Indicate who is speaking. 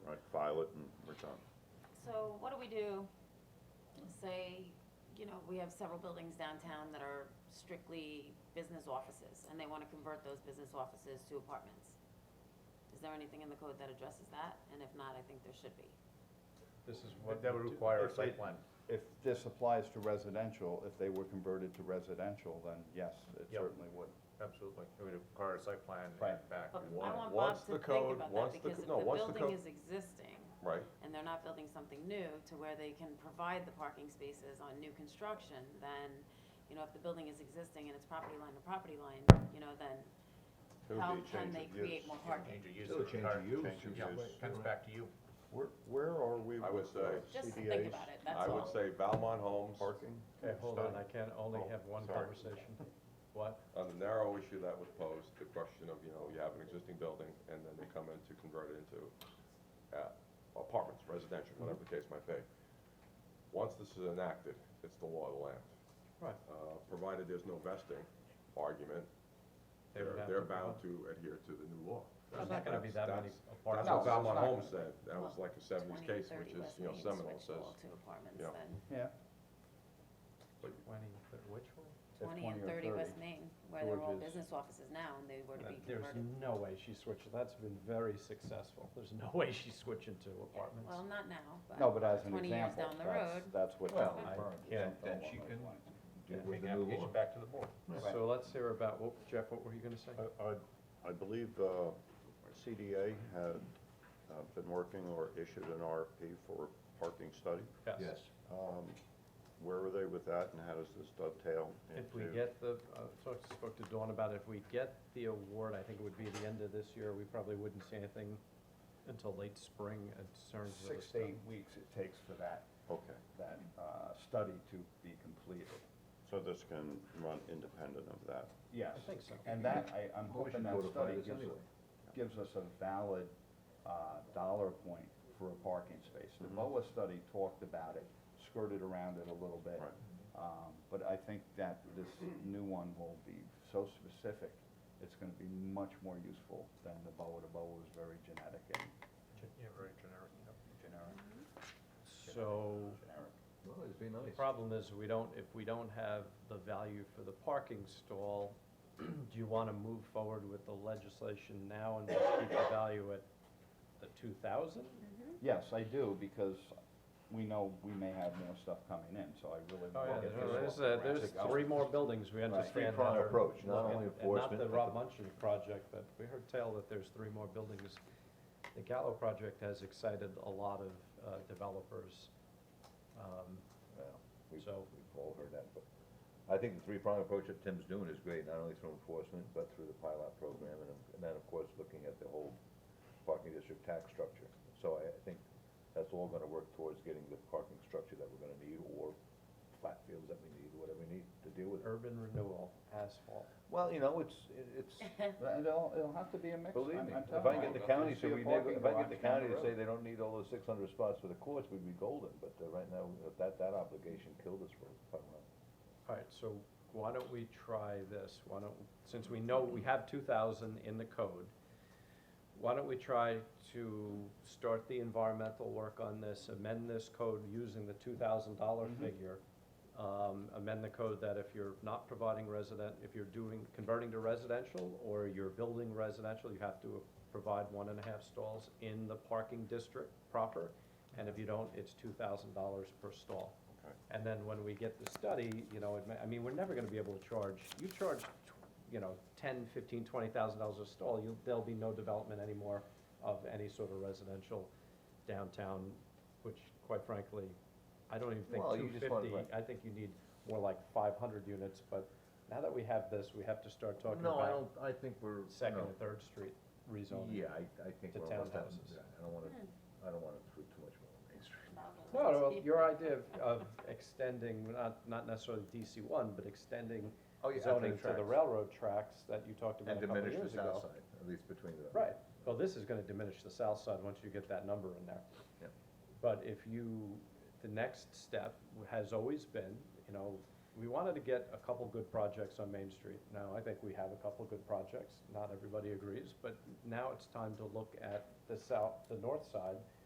Speaker 1: pilot and we're done.
Speaker 2: So what do we do, say, you know, we have several buildings downtown that are strictly business offices, and they wanna convert those business offices to apartments? Is there anything in the code that addresses that? And if not, I think there should be.
Speaker 3: This is
Speaker 4: But
Speaker 3: what.
Speaker 4: that would require a
Speaker 3: if they-
Speaker 4: site plan.
Speaker 5: If this applies to residential, if they were converted to residential, then yes, it
Speaker 4: Yep.
Speaker 5: certainly would.
Speaker 4: Absolutely. It would require a site plan and
Speaker 5: Right.
Speaker 4: back.
Speaker 2: But
Speaker 4: and-
Speaker 2: I
Speaker 1: Once-
Speaker 2: want
Speaker 1: once
Speaker 2: Bob to
Speaker 1: the
Speaker 2: think
Speaker 1: code-
Speaker 2: about
Speaker 1: once
Speaker 2: that,
Speaker 1: the
Speaker 2: because
Speaker 1: co-
Speaker 2: if
Speaker 1: no,
Speaker 2: the
Speaker 1: once the
Speaker 2: building
Speaker 1: code-
Speaker 2: is existing,
Speaker 1: Right.
Speaker 2: and they're not building something new to where they can provide the parking spaces on new construction, then, you know, if the building is existing and it's property line to property line, you know, then
Speaker 1: It would
Speaker 2: how
Speaker 1: be a
Speaker 2: can
Speaker 1: change
Speaker 2: they
Speaker 1: of
Speaker 2: create
Speaker 1: use.
Speaker 2: more parking?
Speaker 4: Change of use.
Speaker 3: Still a
Speaker 4: would
Speaker 3: change of
Speaker 4: require-
Speaker 3: use.
Speaker 1: Change of
Speaker 4: Yeah,
Speaker 1: use.
Speaker 4: comes back to you.
Speaker 5: Where, where are we
Speaker 1: I would
Speaker 5: with uh,
Speaker 1: say-
Speaker 2: Just think
Speaker 5: CDAs
Speaker 2: about it, that's
Speaker 1: I
Speaker 2: all.
Speaker 1: would say Valmont Homes,
Speaker 5: parking?
Speaker 3: Okay, hold on, I can only
Speaker 1: Oh,
Speaker 3: have one
Speaker 1: sorry.
Speaker 3: conversation. What?
Speaker 1: on the narrow issue that was posed, the question of, you know, you have an existing building and then they come in to convert it into uh, apartments, residential, whatever the case might be. Once this is enacted, it's the law of the land.
Speaker 3: Right.
Speaker 1: Uh, Provided there's no vesting argument,
Speaker 3: They would
Speaker 1: they're,
Speaker 3: have
Speaker 1: they're
Speaker 3: to-
Speaker 1: bound to adhere to the new law.
Speaker 3: There's not gonna be
Speaker 1: That's-
Speaker 3: that many
Speaker 1: that's- That's
Speaker 3: apartments.
Speaker 1: what
Speaker 5: No,
Speaker 1: Valmont
Speaker 5: it's not.
Speaker 1: Homes said, that was like a seventies
Speaker 2: 20,
Speaker 1: case,
Speaker 2: 30
Speaker 1: which is,
Speaker 2: West
Speaker 1: you know,
Speaker 2: Main
Speaker 1: Seminole
Speaker 2: switch
Speaker 1: says,
Speaker 2: wall to apartments
Speaker 1: yeah.
Speaker 2: then.
Speaker 5: Yeah.
Speaker 3: Twenty, thir- which one?
Speaker 5: If
Speaker 2: Twenty
Speaker 5: 20
Speaker 2: and
Speaker 5: or
Speaker 2: thirty
Speaker 5: 30,
Speaker 2: West Main, where they're all
Speaker 5: George's.
Speaker 2: business offices now and they were to be
Speaker 3: There's
Speaker 2: converted.
Speaker 3: no way she switched, that's been very successful. There's no way she's switching to apartments.
Speaker 2: Well, not now, but.
Speaker 5: No, but as an
Speaker 2: Twenty years
Speaker 5: example,
Speaker 2: down the
Speaker 5: that's,
Speaker 2: road,
Speaker 5: that's what.
Speaker 3: Well,
Speaker 5: John
Speaker 3: I
Speaker 5: Burns or
Speaker 4: can't-
Speaker 5: something
Speaker 4: then
Speaker 5: along
Speaker 4: she
Speaker 5: those
Speaker 4: can-
Speaker 5: lines.
Speaker 4: Yeah,
Speaker 5: with
Speaker 4: Make
Speaker 5: the new
Speaker 4: an
Speaker 5: law.
Speaker 4: application back to the board.
Speaker 3: So let's hear about, what- Jeff, what were you gonna
Speaker 6: Oh,
Speaker 3: say?
Speaker 5: I, I- I believe uh, CDA had uh, been working or issued an RFP for parking study.
Speaker 3: Yes.
Speaker 5: Um, Where are they with that and how does this dovetail into?
Speaker 3: If we get the, uh, talked- spoke to Dawn about it, if we get the award, I think it would be the end of this year, we probably wouldn't see anything until late spring in terms of the
Speaker 6: six to
Speaker 3: stuff.
Speaker 6: eight weeks it takes for that,
Speaker 5: Okay,
Speaker 6: that uh, study to be completed.
Speaker 5: so this can run independent of that.
Speaker 6: Yes.
Speaker 3: I think so.
Speaker 6: And that, I, I'm hoping that study gives, us- gives us a valid uh, dollar point for a parking space. The BOA study talked about it, skirted around it a little bit.
Speaker 5: Right.
Speaker 6: Um, But I think that this new one will be so specific, it's gonna be much more useful than the BOA. The BOA was very genetic and
Speaker 4: Yeah, very generic.
Speaker 6: generic,
Speaker 3: So,
Speaker 6: generic.
Speaker 7: Well, it'd be nice.
Speaker 3: The problem is, we don't, if we don't have the value for the parking stall, do you wanna move forward with the legislation now and just keep the value at the two thousand?
Speaker 6: Yes, I do, because we know we may have more stuff coming in, so I really
Speaker 3: Oh, yeah,
Speaker 6: want to get
Speaker 3: there-
Speaker 6: this
Speaker 3: there's,
Speaker 6: one.
Speaker 3: uh, there's three more buildings we understand that are.
Speaker 7: approach, not
Speaker 3: and-
Speaker 7: only
Speaker 3: And
Speaker 7: enforcement,
Speaker 3: not the
Speaker 7: but
Speaker 3: Rob
Speaker 7: the-
Speaker 3: Munchen project, but we heard tell that there's three more buildings. The Gallo project has excited a lot of, uh, developers. Um,
Speaker 7: Well, we've,
Speaker 3: So-
Speaker 7: we've all heard that, but I think the three-pronged approach that Tim's doing is great, not only through enforcement, but through the pilot program, and, and then, of course, looking at the whole parking district tax structure. So I, I think that's all gonna work towards getting the parking structure that we're gonna need, or flat fields that we need, whatever we need to deal with it.
Speaker 3: Urban renewal, asphalt.
Speaker 7: Well, you know, it's, it- it's,
Speaker 6: But It'll, it'll have to be a mix.
Speaker 7: believe
Speaker 6: I'm-
Speaker 7: me,
Speaker 6: I'm
Speaker 7: if I
Speaker 6: telling
Speaker 7: can
Speaker 6: you,
Speaker 7: get the county
Speaker 6: you'll
Speaker 7: to
Speaker 6: see a
Speaker 7: reneg,
Speaker 6: parking
Speaker 7: if I can
Speaker 6: garage
Speaker 7: get the
Speaker 6: down
Speaker 7: county to
Speaker 6: road.
Speaker 7: say they don't need all those six hundred spots for the courts, we'd be golden, but, uh, right now, that, that obligation killed us for, for a while.
Speaker 3: All right, so why don't we try this? Why don't, since we know we have two thousand in the code, why don't we try to start the environmental work on this, amend this code using the two thousand dollar figure? Um, amend the code that if you're not providing resident, if you're doing, converting to residential or you're building residential, you have to provide one and a half stalls in the parking district proper. And if you don't, it's two thousand dollars per stall.
Speaker 5: Okay.
Speaker 3: And then when we get the study, you know, it may, I mean, we're never gonna be able to charge, you charge, tw- you know, ten, fifteen, twenty thousand dollars a stall, you, there'll be no development anymore of any sort of residential downtown, which quite frankly, I don't even think
Speaker 7: Well,
Speaker 3: two
Speaker 7: you just want-
Speaker 3: fifty,
Speaker 7: right.
Speaker 3: I think you need more like five hundred units, but now that we have this, we have to start talking
Speaker 7: No, I don't,
Speaker 3: about
Speaker 7: I think we're.
Speaker 3: Second
Speaker 7: no.
Speaker 3: and Third Street rezoning.
Speaker 7: Yeah, I, I think
Speaker 3: to
Speaker 7: we're almost done.
Speaker 3: townhouses.
Speaker 7: Yeah, I don't wanna, I don't wanna put too much more on Main Street.
Speaker 3: No, no, your idea of, of extending, not, not necessarily DC one, but extending
Speaker 7: Oh, yeah,
Speaker 3: zoning
Speaker 7: after the
Speaker 3: to the
Speaker 7: tracks.
Speaker 3: railroad tracks that you talked about
Speaker 7: And
Speaker 3: a couple
Speaker 7: diminish the
Speaker 3: years
Speaker 7: south
Speaker 3: ago.
Speaker 7: side, at least between the.
Speaker 3: Right, well, this is gonna diminish the south side once you get that number in there.
Speaker 7: Yep.
Speaker 3: But if you, the next step has always been, you know, we wanted to get a couple good projects on Main Street. Now, I think we have a couple good projects, not everybody agrees, but now it's time to look at the south, the north side